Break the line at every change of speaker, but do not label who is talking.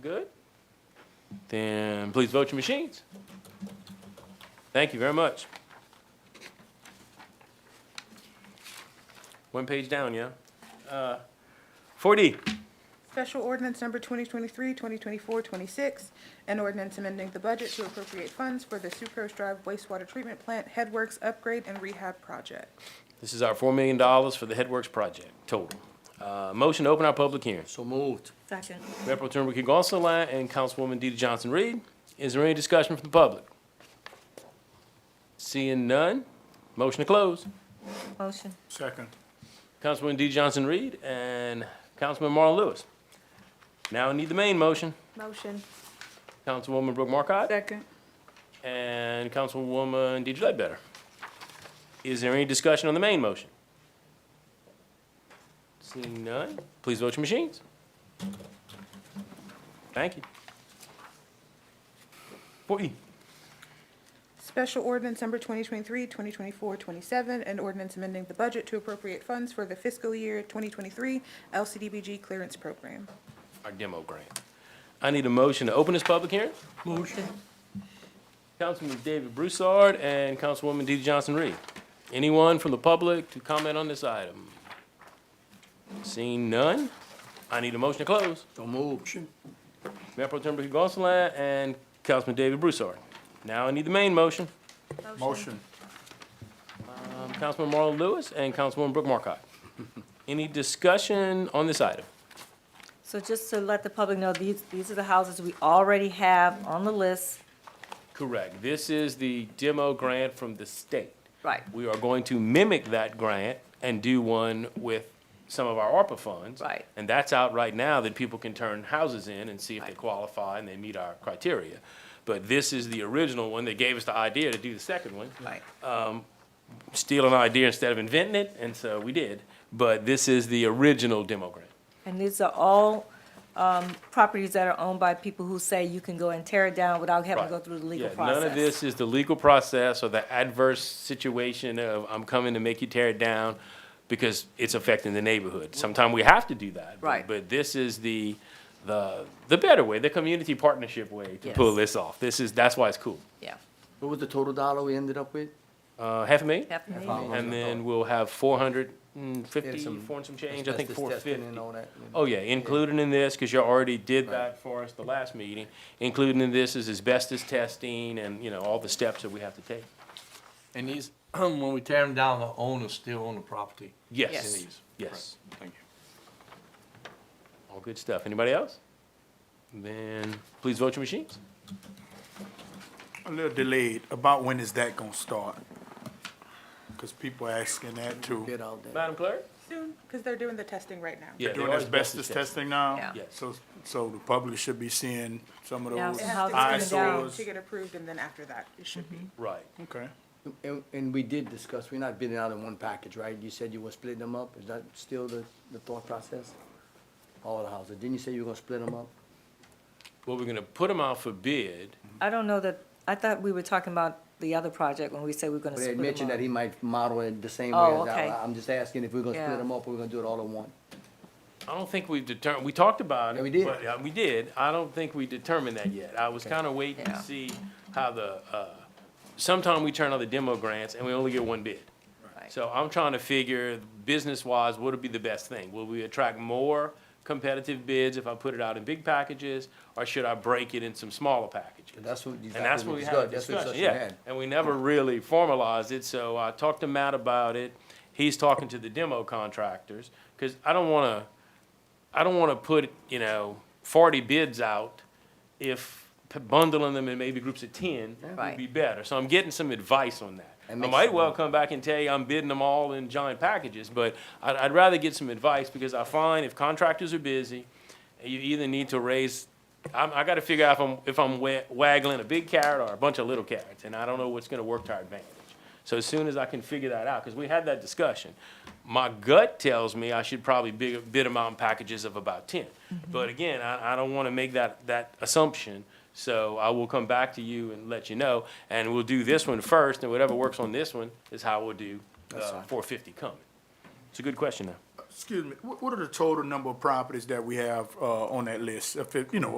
good? Then please vote your machines. Thank you very much. One page down, yeah? Uh, 4D,
Special ordinance number 2023, 2024, 26, an ordinance amending the budget to appropriate funds for the Sucrose Drive wastewater treatment plant headworks upgrade and rehab project.
this is our $4 million for the Headworks project, total. Uh, Motion to open our public hearing.
So moved.
Second.
Mayor Pro Tem Ricky Gonsalas and Councilwoman Deidre Johnson Reed. Is there any discussion from the public? Seeing none, motion to close.
Motion.
Second.
Councilwoman Deidre Johnson Reed and Councilman Marlon Lewis. Now I need the main motion.
Motion.
Councilwoman Brooke Markcott
Second.
and Councilwoman Deidre Ledbetter. Is there any discussion on the main motion? Seeing none, please vote your machines. Thank you. Four E.
Special ordinance number 2023, 2024, 27, an ordinance amending the budget to appropriate funds for the fiscal year 2023 LCDBG clearance program.
our demo grant. I need a motion to open this public hearing.
Motion.
Councilman David Broussard and Councilwoman Dee Johnson Reed. Anyone from the public to comment on this item? Seeing none, I need a motion to close.
So moved.
Mayor Pro Tem Ricky Gonsalas and Councilman David Broussard. Now I need the main motion.
Motion.
Um, Councilman Marlon Lewis and Councilwoman Brooke Markcott. Any discussion on this item?
So just to let the public know, these, these are the houses we already have on the list.
Correct. This is the demo grant from the state.
Right.
We are going to mimic that grant and do one with some of our ARPA funds.
Right.
And that's out right now that people can turn houses in and see if they
Right.
qualify and they meet our criteria. But this is the original one. They gave us the idea to do the second one.
Right.
Steal an idea instead of inventing it, and so we did. But this is the original demo grant.
And these are all, um, properties that are owned by people who say you can go and tear it down without having to go
Right.
through the legal
Yeah,
process.
None of this is the legal process or the adverse situation of I'm coming to make you tear it down because it's affecting the neighborhood. Sometime we have to do that. but-
Right.
But this is the, the, the better way, the community partnership way to pull
Yes.
this off. This is, that's why it's cool.
Yeah.
What was the total dollar we ended up with?
Uh, half a million?
Half a million.
Half a million.
And then we'll have four hundred and fifty,
There's some
four and some change, I think
Asbestos
four
testing
fifty.
and all that.
Oh, yeah, included in this, because you already did
Right.
that for us the last meeting, included in this is asbestos testing and, you know, all the steps that we have to take.
And these, when we tear them down, the owner's still on the property.
Yes.
Yes, yes.
Thank you.
All good stuff. Anybody else? Then please vote your machines.
A little delayed. About when is that gonna start? Cause people asking that too.
Get out there.
Madam Clerk?
Soon, because they're doing the testing right now.
Yeah,
Doing
they are
asbestos testing now?
Yeah.
Yes.
So, so the public should be seeing some of
Yeah,
those
It has to
Eyes
go down
eyesores.
to get approved, and then after that, it should be.
Right.
Okay.
And, and we did discuss, we're not bidding out in one package, right? You said you were splitting them up. Is that still the, the thought process? All the houses. Didn't you say you were gonna split them up?
Well, we're gonna put them out for bid.
I don't know that, I thought we were talking about the other project when we said we were gonna
But
split
they
them
had mentioned that
up.
he might model it the same way
Oh,
as
okay.
I, I'm just asking if we're gonna
Yeah.
split them up or we're gonna do it all at once.
I don't think we've determined, we talked about it.
Yeah, we did.
but, uh, We did. I don't think we determined that yet. I was kinda waiting to
Yeah.
see how the, uh, sometime we turn out the demo grants and we only get one bid.
Right.
So I'm trying to figure, business-wise, what'll be the best thing? Will we attract more competitive bids if I put it out in big packages? Or should I break it in some smaller packages?
And that's what, exactly
And that's
what
what
we
we had
discussed.
a
That's
discussion,
what you
yeah.
had.
And we never really formalized it, so I talked to Matt about it. He's talking to the demo contractors, because I don't want to, I don't want to put, you know, forty bids out if p- bundling them in maybe groups of ten would
Right.
be better. So I'm getting some advice on that. I
That makes
might
sense.
well come back and tell you I'm bidding them all in giant packages, but I'd, I'd rather get some advice, because I find if contractors are busy, you either need to raise, I'm, I gotta figure out if I'm, if I'm wa- waggling a big carrot or a bunch of little carrots, and I don't know what's gonna work to our advantage. So as soon as I can figure that out, because we had that discussion, my gut tells me I should probably bid, bid them out in packages of about ten. But again, I, I don't wanna make that, that assumption, so I will come back to you and let you know, and we'll do this one first, and whatever works on this one is how we'll do, uh, four fifty coming. It's a good question though.
Excuse me, what, what are the total number of properties that we have, uh, on that list? If, it- you know,